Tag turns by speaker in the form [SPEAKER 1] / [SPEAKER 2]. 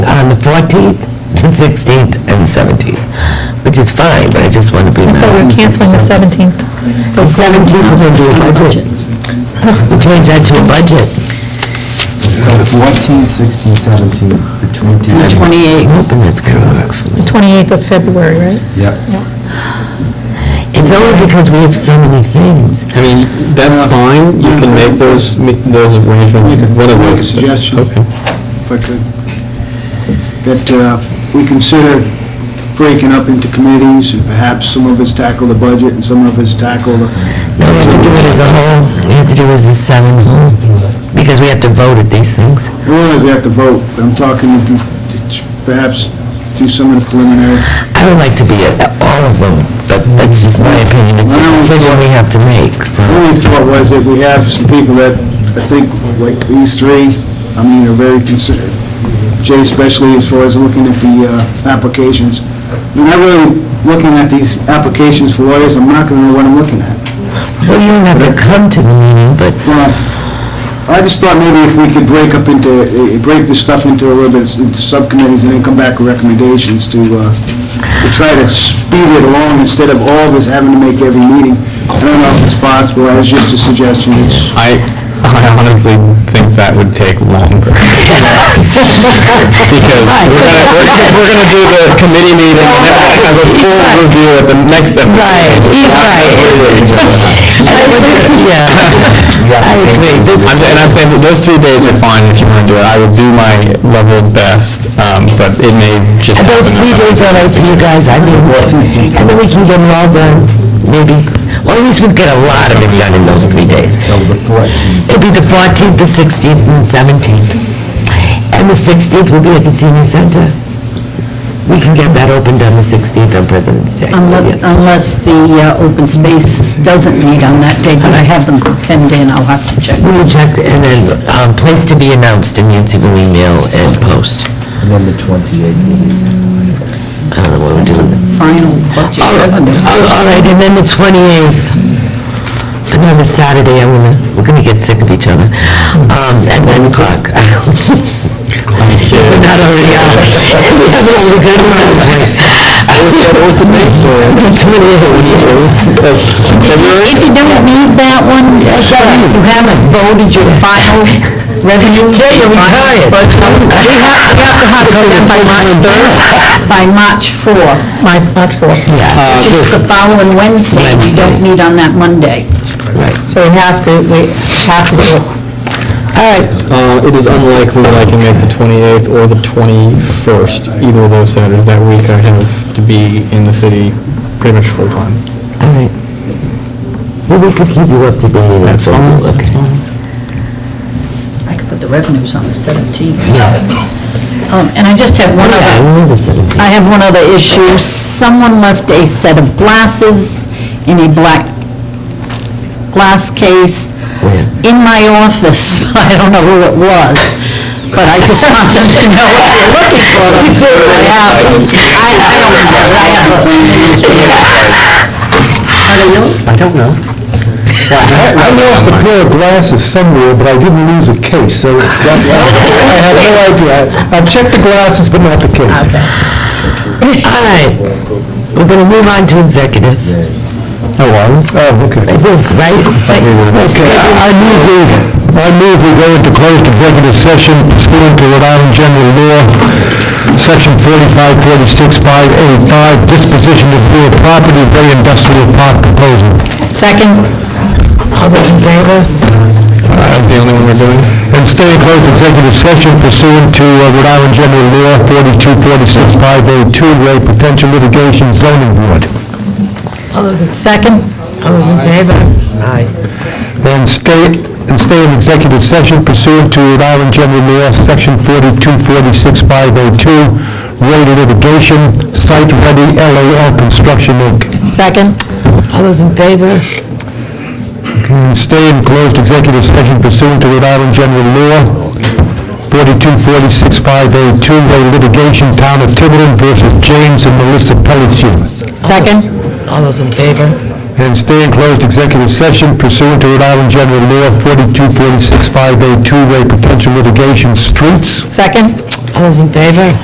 [SPEAKER 1] 14th, the 16th, and the 17th, which is fine, but I just want to be.
[SPEAKER 2] I thought we were canceling the 17th.
[SPEAKER 1] The 17th, we're going to do a budget. We change that to a budget.
[SPEAKER 3] So 14, 16, 17, the 20.
[SPEAKER 4] The 28th.
[SPEAKER 1] Hoping that's going to work for
[SPEAKER 2] The
[SPEAKER 1] me.
[SPEAKER 2] 28th of February, right?
[SPEAKER 3] Yep.
[SPEAKER 1] It's only because we have so many things.
[SPEAKER 5] I mean, that's fine, you
[SPEAKER 1] Mm-hmm.
[SPEAKER 5] can make those, make those arrangements, you could- one of
[SPEAKER 3] Make a
[SPEAKER 5] those.
[SPEAKER 3] suggestion.
[SPEAKER 5] Okay.
[SPEAKER 3] if I could, that uh, we consider breaking up into committees, and perhaps some of us tackle the budget and some of us tackle the...
[SPEAKER 1] No, we have to do it as a whole, we have to do it as a seven whole, because we have to vote at these things.
[SPEAKER 3] I realize we have to vote, but I'm talking to to perhaps do some of the preliminary.
[SPEAKER 1] I would like to be at all of them, but that's just my opinion, it's a decision we have to make, so.
[SPEAKER 3] My only thought was that we have some people that, I think, like these three, I mean, are very considerate. Jay especially, as far as looking at the uh, applications. I'm not really looking at these applications for lawyers, I'm not going to know what I'm looking at.
[SPEAKER 1] Well, you don't have to come to the meeting, but
[SPEAKER 3] Well, I just thought maybe if we could break up into, eh, break this stuff into a little bit, into subcommittees, and then come back with recommendations to, uh, to try to speed it along instead of all of us having to make every meeting. I don't know if it's possible, that was just a suggestion, it's,
[SPEAKER 5] I, I honestly think that would take longer. Because we're gonna, we're gonna- we're gonna do the committee meeting, and then we're gonna have a full review at the next episode.
[SPEAKER 1] Right, he's right. Yeah. I agree. This-
[SPEAKER 5] I'm- And I'm saying that those three days are fine if you want to do it, I will do my level best, um, but it may just
[SPEAKER 1] And
[SPEAKER 5] happen.
[SPEAKER 1] those three days are right for you guys, I mean, and then we can get them all done, maybe, or at least we'll get a lot of it done in those three days. It'll be the 14th, the 16th, and the 17th. And the 16th will be at the senior center. We can get that opened on the 16th on President's Day.
[SPEAKER 4] Unless
[SPEAKER 1] Yes.
[SPEAKER 4] unless the uh, open space doesn't meet on that date, but I have them pinned in, I'll have to check.
[SPEAKER 1] We will check, and then, um, place to be announced, and Yancy will email and post.
[SPEAKER 3] And then the 28th.
[SPEAKER 1] I don't know what we're doing.
[SPEAKER 4] Final
[SPEAKER 1] All right,
[SPEAKER 4] budget.
[SPEAKER 1] all right, and then the 28th, another Saturday, I'm gonna, we're gonna get sick of each other, um, at 9 o'clock. We're not already out. What was the date?
[SPEAKER 4] If you don't need that one, uh, you haven't voted your final revenue.
[SPEAKER 1] Jay, you're retired.
[SPEAKER 4] But um, we have, we have to have it done by March 3rd, by March 4th,
[SPEAKER 2] My, March 4th.
[SPEAKER 4] which is the following Wednesday. We don't meet on that Monday.
[SPEAKER 2] So we have to, we have to do it. All right,
[SPEAKER 5] Uh, It is unlikely that I can make the 28th or the 21st, either of those Saturdays. That week I have to be in the city pretty much full-time.
[SPEAKER 1] All right. Well, we could keep you up to date. That's fine. Okay.
[SPEAKER 4] I could put the revenues on the 17th. Um, And I just have one other
[SPEAKER 1] I remember 17th.
[SPEAKER 4] I have one other issue. Someone left a set of glasses in a black glass case
[SPEAKER 1] Where?
[SPEAKER 4] in my office. I don't know who it was, but I just wanted to know if you're looking for them. I have, I I don't have, it. I have. a- Are they yours?
[SPEAKER 5] I don't know.
[SPEAKER 3] I lost a pair of glasses somewhere, but I didn't lose a case, so that- I have no idea. I've checked the glasses, but not the case.
[SPEAKER 1] All right, we're gonna move on to executive.
[SPEAKER 3] Oh, Oh, okay.
[SPEAKER 1] I think, Right?
[SPEAKER 3] Okay, I I move we, I move we go into closed executive session pursuant to Rhode Island General Law, Section 4546-5A5, disposition of real property, Bay Industrial Park proposal.
[SPEAKER 4] Second?
[SPEAKER 1] All those in favor?
[SPEAKER 5] That's the only one we're doing.
[SPEAKER 3] And stay in closed executive session pursuant to uh, Rhode Island General Law 42465A2, oh Ray Potential Litigation Zoning Board.
[SPEAKER 1] All those in second?
[SPEAKER 3] uh,
[SPEAKER 1] All those in favor? Aye.
[SPEAKER 3] And stay, and stay in executive session pursuant to Rhode Island General Law, Section 4246502, rate of litigation, site ready LAL Construction Inc.
[SPEAKER 4] Second.
[SPEAKER 1] All those in favor?
[SPEAKER 3] And stay in closed executive session pursuant to Rhode Island General Law, 4246502, rate of litigation, Town of Tiverton versus James and Melissa Pelletier.
[SPEAKER 4] Second?
[SPEAKER 1] All those in favor?
[SPEAKER 3] And stay in closed executive session pursuant to Rhode Island General Law 4246502, rate potential litigation, streets.
[SPEAKER 4] Second?
[SPEAKER 1] All those in favor?